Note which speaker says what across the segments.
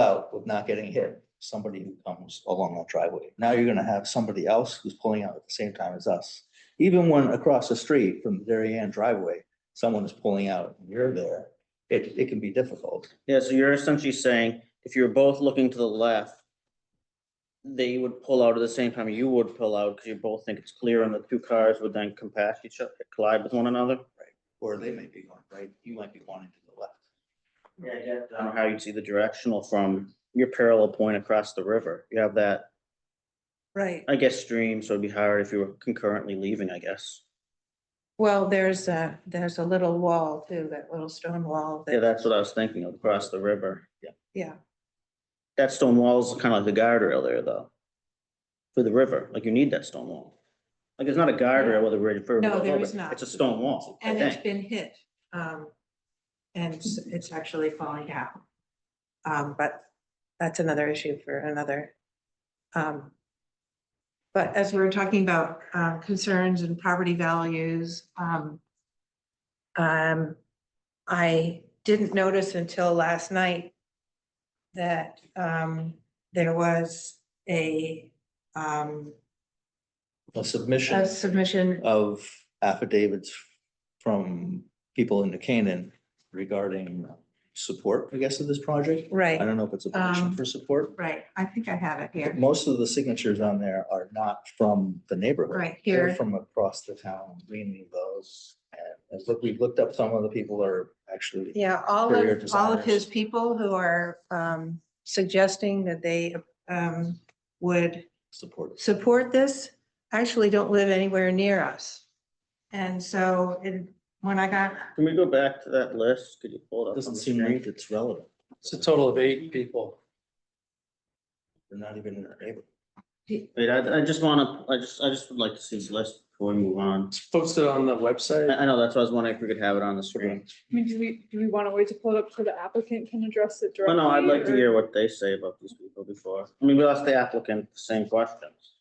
Speaker 1: out with not getting hit, somebody who comes along that driveway. Now you're gonna have somebody else who's pulling out at the same time as us. Even when across the street from the Darien driveway, someone is pulling out and you're there, it, it can be difficult.
Speaker 2: Yeah, so you're essentially saying if you're both looking to the left, they would pull out at the same time you would pull out because you both think it's clear and the two cars would then compass each other, collide with one another.
Speaker 1: Or they may be going right, you might be wanting to the left.
Speaker 2: Yeah, yeah. I don't know how you'd see the directional from your parallel point across the river. You have that,
Speaker 3: Right,
Speaker 2: I guess, stream, so it'd be hard if you were concurrently leaving, I guess.
Speaker 3: well, there's a, there's a little wall too, that little stone wall. that-
Speaker 2: Yeah, that's what I was thinking of, across the river.
Speaker 3: Yeah,
Speaker 2: That stone wall's kind of like the guardrail there, though. For the river, like you need that stone wall. Like, it's not a guardrail with a ridge.
Speaker 3: No, there is not.
Speaker 2: It's a stone wall, I
Speaker 3: and it's
Speaker 2: think.
Speaker 3: been hit. um, And it's- it's actually falling down. Um, But that's another issue for another. um, But as we were talking about uh, concerns and property values, um, um, I didn't notice until last night that um, there was a um,
Speaker 1: A
Speaker 3: a
Speaker 1: submission
Speaker 3: submission
Speaker 1: of affidavits from people in New Canaan regarding support, I guess, of this project. I
Speaker 3: Right,
Speaker 1: don't know if it's a petition
Speaker 3: Um,
Speaker 1: for support.
Speaker 3: right. I think I have it
Speaker 1: But
Speaker 3: here.
Speaker 1: Most of the signatures on there are not from the neighborhood.
Speaker 3: Right
Speaker 1: They're
Speaker 3: here.
Speaker 1: From across the town, we need those. And as look, we've looked up, some of the people are actually,
Speaker 3: Yeah, all
Speaker 1: Interior
Speaker 3: of, all of
Speaker 1: designers.
Speaker 3: his people who are um, suggesting that they um, would
Speaker 1: supportive.
Speaker 3: support this actually don't live anywhere near us. And so it- when I got,
Speaker 2: Can we go back to that list? Could you pull it up? on
Speaker 1: Doesn't
Speaker 2: the
Speaker 1: seem
Speaker 2: screen?
Speaker 1: like it's relevant.
Speaker 4: It's a total of eight people.
Speaker 1: They're not even in our neighborhood.
Speaker 2: Wait, I, I just wanna, I just, I just would like to see this list before we move on.
Speaker 4: It's posted on the
Speaker 2: I,
Speaker 4: website.
Speaker 2: I know, that's why I was wondering if we could have it on the screen.
Speaker 5: I mean, do we, do we want to wait to pull it up so the applicant can address it
Speaker 2: But
Speaker 5: directly?
Speaker 2: no, I'd like to
Speaker 5: or-
Speaker 2: hear what they say about these people before. I mean, we asked the applicant the same questions.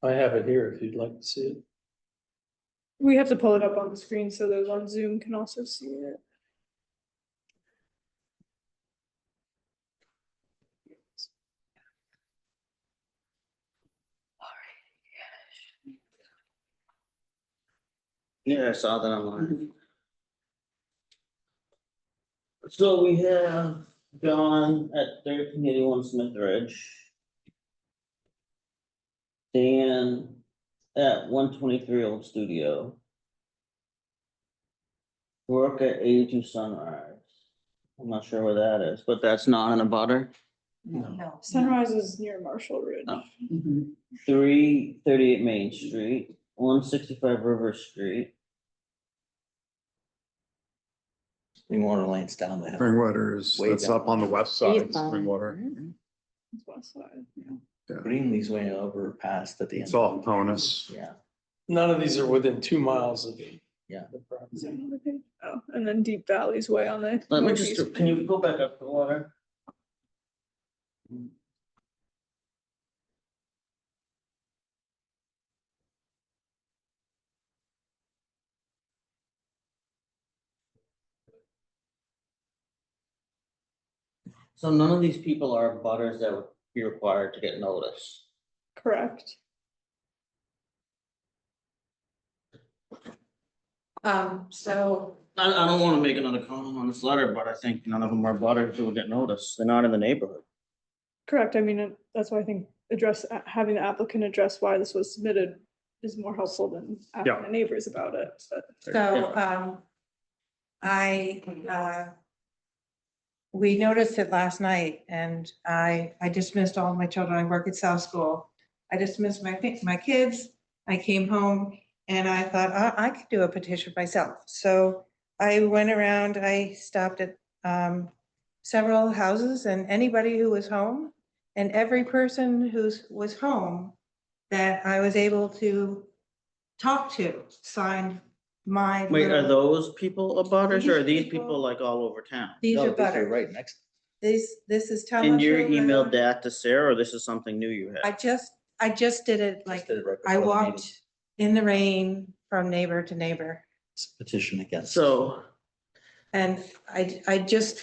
Speaker 4: I have it here if you'd like to see it.
Speaker 5: We have to pull it up on the screen so those on Zoom can also see it.
Speaker 2: Yeah, I saw that online. So we have John at thirteen eighty-one Smith Ridge. Dan at one twenty-three Old Studio. Work at eighty-two Sunrise. I'm not sure where that is, but that's not in a butter.
Speaker 3: no,
Speaker 5: Sunrise is near Marshall Ridge.
Speaker 2: Oh. Three thirty-eight Main Street, one sixty-five River Street.
Speaker 1: Springwater Lane's down the hill.
Speaker 6: Springwater is,
Speaker 1: Way
Speaker 6: that's
Speaker 1: down.
Speaker 6: up on the west side, Springwater.
Speaker 5: It's west side, yeah.
Speaker 1: Greenlee's way over past at the end.
Speaker 6: It's all Ponus.
Speaker 1: Yeah,
Speaker 4: None of these are within two miles of.
Speaker 1: Yeah.
Speaker 4: the property.
Speaker 5: Is there another page? Oh, and then Deep Valley's way on the.
Speaker 2: Let me just,
Speaker 5: northeast.
Speaker 2: can you go back up the water? So none of these people are butters that would be required to get notice.
Speaker 5: Correct.
Speaker 3: Um, so,
Speaker 2: I, I don't wanna make another comment on this letter, but I think none of them are butters who would get noticed. They're not in the neighborhood.
Speaker 5: Correct. I mean, it- that's why I think address, uh, having the applicant address why this was submitted is more helpful than asking
Speaker 6: Yeah.
Speaker 5: the neighbors about it, but.
Speaker 3: so um, I, uh, we noticed it last night and I, I dismissed all my children. I work at South School. I dismissed my, fi- my kids. I came home and I thought, "Uh, I, I could do a petition myself. So I went around, I stopped at um, several houses and anybody who was home and every person who's, was home that I was able to talk to signed my.
Speaker 2: Wait, are
Speaker 3: little-
Speaker 2: those people abutters or are these
Speaker 3: These
Speaker 2: people
Speaker 3: people-
Speaker 2: like all over town?
Speaker 3: These
Speaker 1: No,
Speaker 3: are
Speaker 1: oh, these are
Speaker 3: butter.
Speaker 1: right next.
Speaker 3: This, this is Thomas.
Speaker 2: And you
Speaker 3: Road.
Speaker 2: emailed that to Sarah or this is something new you
Speaker 3: I
Speaker 2: had?
Speaker 3: just, I just did it like,
Speaker 1: just right
Speaker 3: I
Speaker 1: before the
Speaker 3: walked
Speaker 1: meeting.
Speaker 3: in the rain from neighbor to neighbor.
Speaker 1: Petition against.
Speaker 2: So.
Speaker 3: And I, I just